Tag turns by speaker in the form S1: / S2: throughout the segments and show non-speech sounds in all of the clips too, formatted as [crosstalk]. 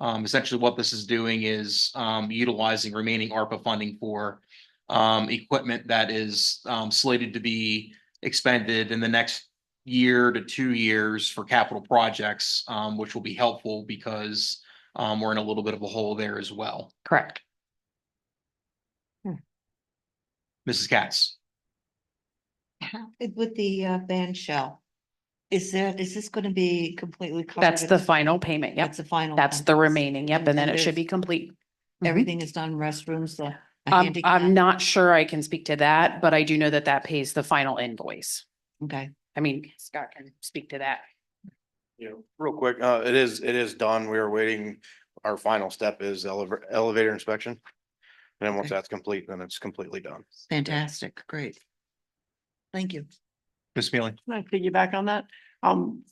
S1: Um, essentially what this is doing is, um, utilizing remaining ARPA funding for, um, equipment that is, um, slated to be expended in the next year to two years for capital projects, um, which will be helpful because, um, we're in a little bit of a hole there as well.
S2: Correct.
S1: Mrs. Katz,
S3: With the uh, band shell, is there, is this gonna be completely covered?
S2: That's
S3: at
S2: the
S3: this-
S2: final payment. Yep.
S3: That's the final.
S2: That's
S3: one.
S2: the remaining. Yep. And then it
S3: And
S2: should be
S3: there's-
S2: complete. Mhm.
S3: Everything is done, restrooms, the. a
S2: I'm,
S3: handicap-
S2: I'm not sure I can speak to that, but I do know that that pays the final invoice.
S3: Okay,
S2: I mean, Scott can speak to that.
S4: Yeah, real quick, uh, it is, it is done. We are waiting. Our final step is elevator, elevator inspection. And then once
S3: Okay.
S4: that's complete, then it's completely done.
S3: fantastic, great. Thank you.
S1: Ms. Mealy.
S5: Can I piggyback on that? Um,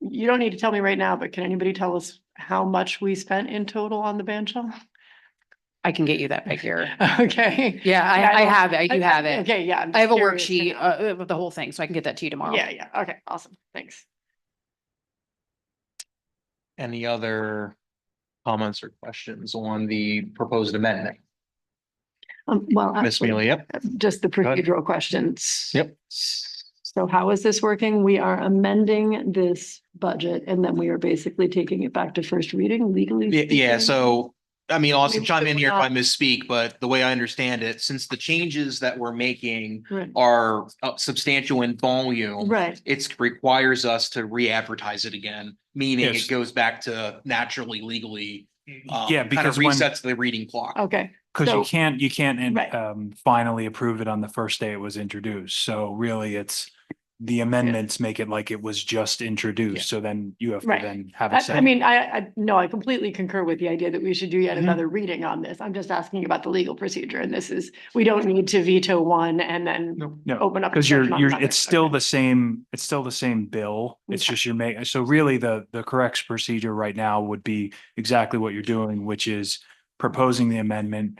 S5: you don't need to tell me right now, but can anybody tell us how much we spent in total on the band shell?
S2: I can get you that
S5: [laughs]
S2: figure.
S5: Okay.
S2: Yeah,
S5: Yeah,
S2: I,
S5: I
S2: I
S5: don't-
S2: have it. I do have it.
S5: Okay, yeah. I'm
S2: I have a
S5: curious to
S2: worksheet,
S5: know.
S2: uh, with the whole thing, so I can get that to you tomorrow.
S5: Yeah, yeah. Okay, awesome. Thanks.
S1: Any other comments or questions on the proposed amendment?
S5: Um, well,
S1: Ms.
S5: actually,
S1: Mealy, yep.
S5: just the
S1: ahead.
S5: procedural questions.
S1: Yep.
S5: So how is this working? We are amending this budget and then we are basically taking it back to first reading legally.
S1: Yeah, yeah,
S5: speaking?
S1: so, I mean, Austin,
S5: Maybe
S1: chime
S5: we're
S1: in here if I misspeak, but the way I understand it, since the changes that we're making
S5: Right.
S1: are uh, substantial in volume,
S5: Right,
S1: it's requires us to re-advertise it again, meaning
S6: Yes.
S1: it goes back to naturally legally. um,
S6: Yeah,
S1: kind of
S6: because when,
S1: Resets the reading clock.
S5: okay.
S6: because
S5: so-
S6: you can't, you can't in-
S5: Right.
S6: um, finally approve it on the first day it was introduced. So really, it's the amendments make it like it was just introduced. So then you have to
S5: Right.
S6: then have a
S5: I, I
S6: second.
S5: mean, I, I, no, I completely concur with the idea that we should do yet
S6: Mhm.
S5: another reading on this. I'm just asking about the legal procedure and this is, we don't need to veto one and then
S6: No, no,
S5: open up.
S6: because you're,
S5: discussion on
S6: you're,
S5: another.
S6: it's still
S5: Okay.
S6: the same, it's still the same bill. It's
S5: Okay.
S6: just you're making, so really the, the correct procedure right now would be exactly what you're doing, which is proposing the amendment.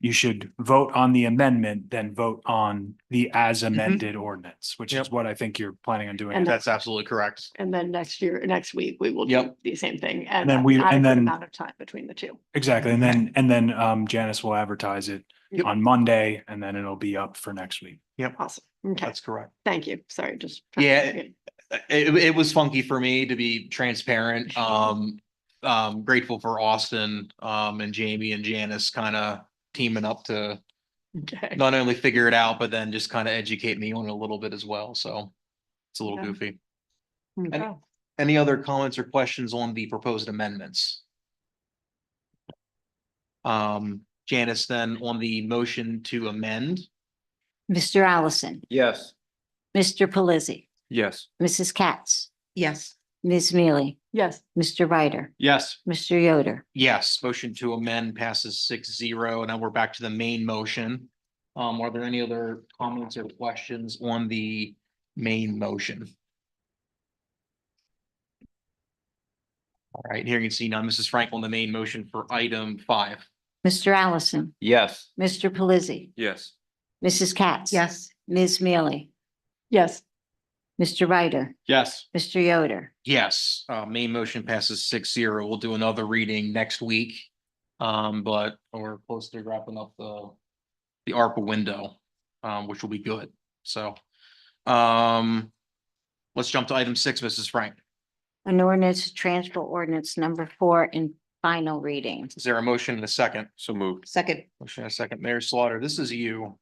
S6: You should vote on the amendment, then vote on the as amended ordinance, which is
S1: Yep.
S6: what I think you're planning on doing.
S5: Mm-hmm. And
S1: That's absolutely correct.
S5: And then next year, next week, we will do
S1: Yep.
S5: the same thing and
S6: then we-
S5: an
S6: and
S5: adequate
S6: then-
S5: amount of time between the two.
S6: Exactly. And then, and then um Janice will advertise it
S5: Yep.
S6: on Monday and then it'll be up for next week.
S5: Awesome. Okay,
S1: That's correct.
S5: thank you. Sorry, just.
S1: Yeah. Uh, It, it was funky for me to be transparent. Um, um, grateful for Austin, um, and Jamie and Janice kind of teaming up to
S5: Okay.
S1: not only figure it out, but then just kind of educate me on it a little bit as well. So it's a little
S5: Okay.
S1: goofy.
S5: Okay.
S1: Any other comments or questions on the proposed amendments? Um, Janice, then on the motion to amend,
S7: Mr. Allison,
S4: Yes.
S7: Mr. Pelisi,
S4: Yes.
S7: Mrs. Katz,
S3: Yes,
S7: Ms. Mealy,
S5: Yes,
S7: Mr. Ryder,
S4: Yes.
S7: Mr. Yoder,
S1: yes, motion to amend passes six zero. Now we're back to the main motion. Um, are there any other comments or questions on the main motion? All right, here you can see now Mrs. Frank on the main motion for item five.
S7: Mr. Allison,
S4: Yes.
S7: Mr. Pelisi,
S4: Yes.
S7: Mrs. Katz.
S3: yes,
S7: Ms. Mealy,
S5: yes,
S7: Mr. Ryder,
S4: Yes.
S7: Mr. Yoder,
S1: Yes, uh, main motion passes six zero. We'll do another reading next week. Um, but we're close to wrapping up the, the ARPA window, um, which will be good. So, um, let's jump to item six, Mrs. Frank.
S7: an ordinance, to transfer ordinance number four in final reading.
S1: Is there a motion and a second?
S4: So moved.
S3: second,
S1: Motion and a second. Mayor Slaughter, this is you.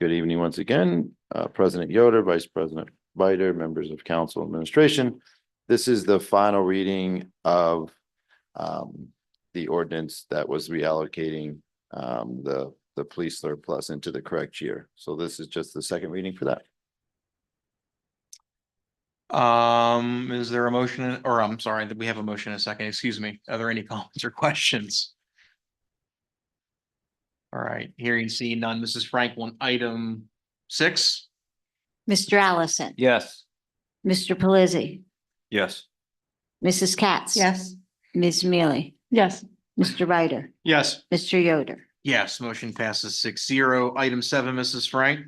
S8: Good evening once again, uh, President Yoder, Vice President Bider, members of council administration. This is the final reading of um, the ordinance that was reallocating um, the, the police surplus into the correct year. So this is just the second reading for that.
S1: Um, is there a motion, or I'm sorry, that we have a motion and a second, excuse me. Are there any [laughs] comments or questions? All right, hearing and seeing none. Mrs. Frank on item six.
S7: Mr. Allison,
S4: Yes.
S7: Mr. Pelisi,
S4: Yes.
S7: Mrs. Katz.
S3: yes,
S7: Ms. Mealy,
S5: yes,
S7: Mr. Ryder,
S1: Yes.
S7: Mr. Yoder,
S1: Yes, motion passes six zero. Item seven, Mrs. Frank.